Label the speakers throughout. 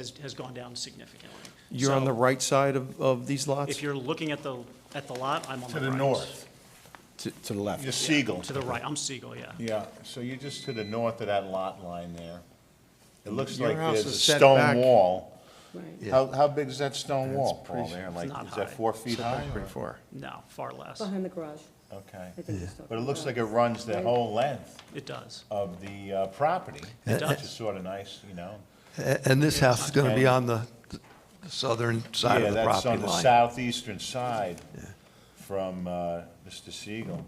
Speaker 1: has, has gone down significantly.
Speaker 2: You're on
Speaker 1: So,
Speaker 2: the right side of, of these lots?
Speaker 1: If you're looking at the, at the lot, I'm on
Speaker 3: To
Speaker 1: the right.
Speaker 3: the north,
Speaker 2: To, to the
Speaker 3: you're
Speaker 2: left?
Speaker 3: Siegel.
Speaker 1: To the right, I'm Siegel, yeah.
Speaker 3: Yeah, so you're just to the north of that lot line there. It looks
Speaker 2: Your
Speaker 3: like
Speaker 2: house
Speaker 3: there's a
Speaker 2: is set back.
Speaker 3: stone wall.
Speaker 4: Right.
Speaker 3: How, how big is that stone wall,
Speaker 2: pretty-
Speaker 3: Paul, there? Like,
Speaker 1: not
Speaker 3: is that
Speaker 1: high.
Speaker 3: four feet high? or-
Speaker 2: Pretty far.
Speaker 1: No, far less.
Speaker 4: Behind the garage,
Speaker 3: Okay.
Speaker 4: I think he's talking
Speaker 3: But it looks
Speaker 4: about.
Speaker 3: like it runs the whole length
Speaker 1: It does.
Speaker 3: of the uh, property. It
Speaker 1: does.
Speaker 3: Which is sort of nice, you know?
Speaker 5: A- And this house is going to be on the the southern side
Speaker 3: Yeah,
Speaker 5: of the
Speaker 3: that's on
Speaker 5: property
Speaker 3: the
Speaker 5: line.
Speaker 3: southeastern side from uh, Mr. Siegel.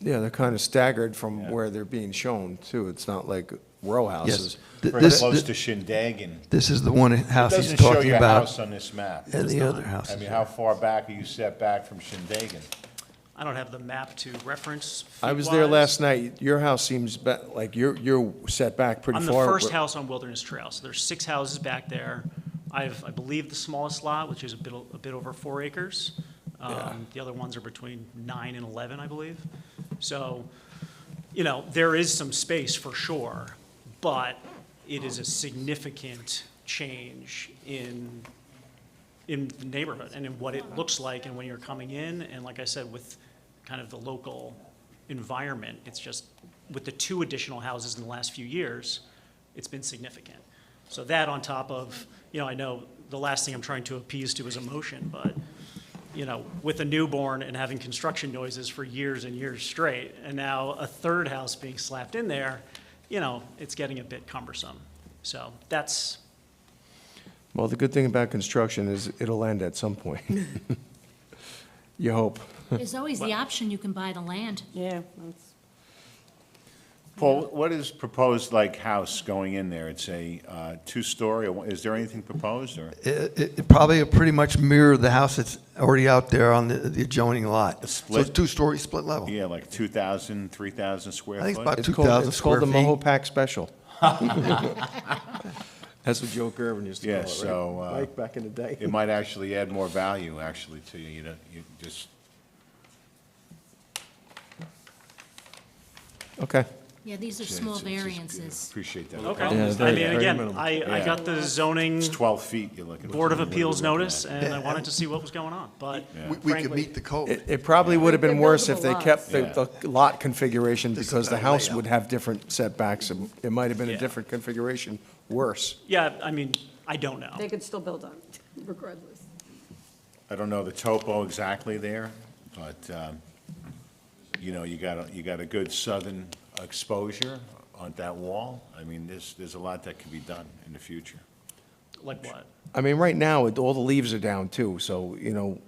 Speaker 2: Yeah, they're kind of staggered from
Speaker 3: Yeah.
Speaker 2: where they're being shown, too. It's not like row
Speaker 5: Yes.
Speaker 2: houses.
Speaker 5: Th-
Speaker 3: Pretty
Speaker 5: This,
Speaker 3: close to
Speaker 5: thi-
Speaker 3: Shindagan.
Speaker 5: this is the one house he's
Speaker 3: Doesn't show
Speaker 5: talking
Speaker 3: your house
Speaker 5: about,
Speaker 3: on this map.
Speaker 5: and the other house.
Speaker 3: I mean, how far back are you set back from Shindagan?
Speaker 1: I don't have the map to reference.
Speaker 2: I was there
Speaker 1: feet-wise.
Speaker 2: last night. Your house seems ba- like you're, you're set back pretty
Speaker 1: I'm the
Speaker 2: far.
Speaker 1: first house on Wilderness Trail, so there's six houses back there. I have, I believe, the smallest lot, which is a bit, a bit over four acres. Um, The other ones are between nine and 11, I believe. So, you know, there is some space for sure, but it is a significant change in, in the neighborhood and in what it looks like and when you're coming in. And like I said, with kind of the local environment, it's just, with the two additional houses in the last few years, it's been significant. So that on top of, you know, I know the last thing I'm trying to appease to is emotion, but, you know, with a newborn and having construction noises for years and years straight, and now a third house being slapped in there, you know, it's getting a bit cumbersome. So that's,
Speaker 2: Well, the good thing about construction is it'll end at some point. You hope.
Speaker 6: There's always the option, you can buy the land.
Speaker 4: Yeah, that's-
Speaker 3: Paul, what is proposed, like, house going in there? It's a uh, two-story, or is there anything proposed, or?
Speaker 5: It, it- it probably pretty much mirrored the house that's already out there on the the adjoining lot. So it's
Speaker 3: split?
Speaker 5: two-story split level.
Speaker 3: Yeah, like 2,000, 3,000 square foot?
Speaker 5: Oh. I think it's about
Speaker 2: It's called,
Speaker 5: 2,000
Speaker 2: it's called
Speaker 5: square
Speaker 2: the
Speaker 5: feet.
Speaker 2: Mahopac Special. That's what Joe Gervin used to
Speaker 3: Yeah,
Speaker 2: call it, right?
Speaker 3: so, uh,
Speaker 2: Like back in the day.
Speaker 3: It might actually add more value, actually, to you, you know, you just,
Speaker 2: Okay.
Speaker 6: Yeah, these are
Speaker 3: it's-
Speaker 6: small
Speaker 3: it's- it's-
Speaker 6: variances.
Speaker 3: appreciate that.
Speaker 1: okay.
Speaker 2: Yeah,
Speaker 1: I
Speaker 2: very-
Speaker 1: mean,
Speaker 2: very
Speaker 1: again,
Speaker 2: minimal.
Speaker 1: I, I
Speaker 3: Yeah.
Speaker 1: got the zoning
Speaker 3: It's 12 feet you're looking.
Speaker 1: Board of
Speaker 3: for.
Speaker 1: Appeals
Speaker 3: What are we looking
Speaker 1: notice,
Speaker 3: at?
Speaker 1: and I wanted to see what was going on, but
Speaker 5: We- We could
Speaker 1: frankly-
Speaker 5: meet the code.
Speaker 2: It, it probably would have been
Speaker 4: They're
Speaker 2: worse if they
Speaker 4: buildable
Speaker 2: kept
Speaker 3: lots.
Speaker 2: the, the lot configuration because the
Speaker 5: better
Speaker 2: house
Speaker 5: layout.
Speaker 2: would have different setbacks. and It might have been a
Speaker 1: Yeah.
Speaker 2: different configuration, worse.
Speaker 1: Yeah, I mean, I don't know.
Speaker 4: they could still build on it regardless.
Speaker 3: I don't know the topo exactly there, but, um, you know, you got, a you got a good southern exposure on that wall. I mean, there's, there's a lot that can be done in the future.
Speaker 1: Like what?
Speaker 2: I mean, right now, it- all the leaves are down too, so, you know,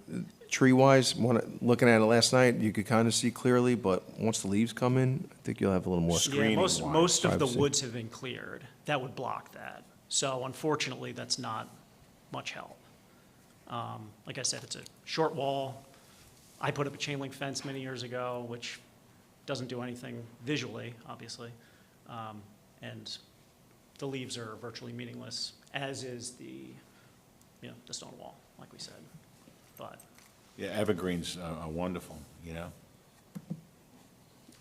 Speaker 2: tree-wise, when, looking at it last night, you could kind of see clearly, but once the leaves come in, I think you'll have a little more.
Speaker 1: Yeah, most,
Speaker 3: Screening-wise,
Speaker 1: most of the
Speaker 2: privacy.
Speaker 1: woods have been cleared. That would block that. So unfortunately, that's not much help. Um, Like I said, it's a short wall. I put up a chain link fence many years ago, which doesn't do anything visually, obviously. Um, And the leaves are virtually meaningless, as is the, you know, the stone wall, like we said. But
Speaker 3: Yeah, evergreens are are wonderful, you know?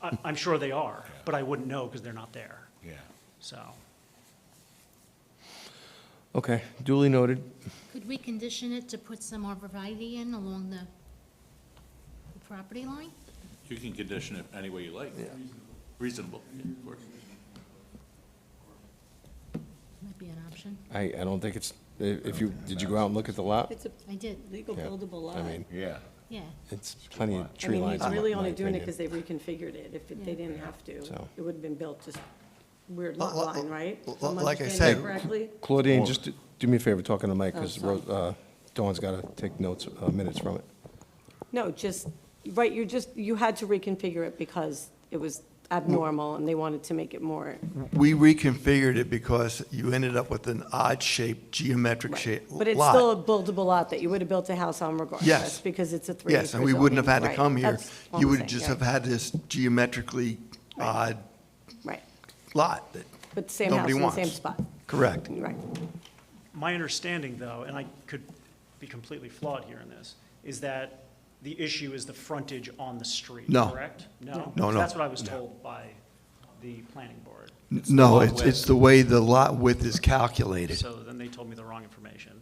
Speaker 1: I, I'm sure they are, but I wouldn't know because they're not there,
Speaker 3: Yeah.
Speaker 1: so.
Speaker 2: Okay, duly noted.
Speaker 6: Could we condition it to put some arborvitae in along the the property line?
Speaker 7: You can condition it any way you like. Reasonable, of course.
Speaker 6: Might be an option.
Speaker 2: I, I don't think it's, i- if you, did you go out and look at the lot?
Speaker 4: It's a
Speaker 6: I did,
Speaker 4: legal
Speaker 2: Yeah,
Speaker 4: buildable lot.
Speaker 2: I mean,
Speaker 3: Yeah.
Speaker 6: yeah.
Speaker 2: it's plenty of
Speaker 4: I
Speaker 2: tree
Speaker 4: mean,
Speaker 2: lines.
Speaker 4: he's
Speaker 2: in
Speaker 4: really
Speaker 2: my
Speaker 4: only doing it
Speaker 2: opinion.
Speaker 4: because they reconfigured it. If it- they
Speaker 6: Yeah.
Speaker 4: didn't have to,
Speaker 2: So.
Speaker 4: it would have been built just weird
Speaker 5: Li-
Speaker 4: lot
Speaker 5: li-
Speaker 4: line, right?
Speaker 5: li-
Speaker 4: If I'm
Speaker 5: like I
Speaker 4: understanding
Speaker 5: said-
Speaker 4: Correctly?
Speaker 2: Claudine, just do- do me a favor, talking to Mike,
Speaker 4: Oh,
Speaker 2: because
Speaker 4: sorry.
Speaker 2: uh, Dawn's got to take notes, uh, minutes from it.
Speaker 4: No, just, right, you just, you had to reconfigure it because it was abnormal and they wanted to make it more,
Speaker 5: We reconfigured it because you ended up with an odd-shaped, geometric shape lot.
Speaker 4: but it's still a buildable lot that you would have built a house on regardless.
Speaker 5: Yes.
Speaker 4: Because it's a three
Speaker 5: Yes, and we wouldn't have had to come here. You would just have
Speaker 4: had.
Speaker 5: had this geometrically odd
Speaker 4: Right,
Speaker 5: lot that,
Speaker 4: but same house
Speaker 5: Nobody
Speaker 4: in the same
Speaker 5: wants.
Speaker 4: spot,
Speaker 5: correct.
Speaker 4: right.
Speaker 1: My understanding, though, and I could be completely flawed here in this, is that the issue is the frontage on the street,
Speaker 5: No.
Speaker 1: correct? No?
Speaker 5: No, no.
Speaker 1: That's what I was told by the planning board.
Speaker 5: No,
Speaker 1: lot
Speaker 5: it's,
Speaker 1: width.
Speaker 5: it's the way the lot width is calculated.
Speaker 1: So then they told me the wrong information.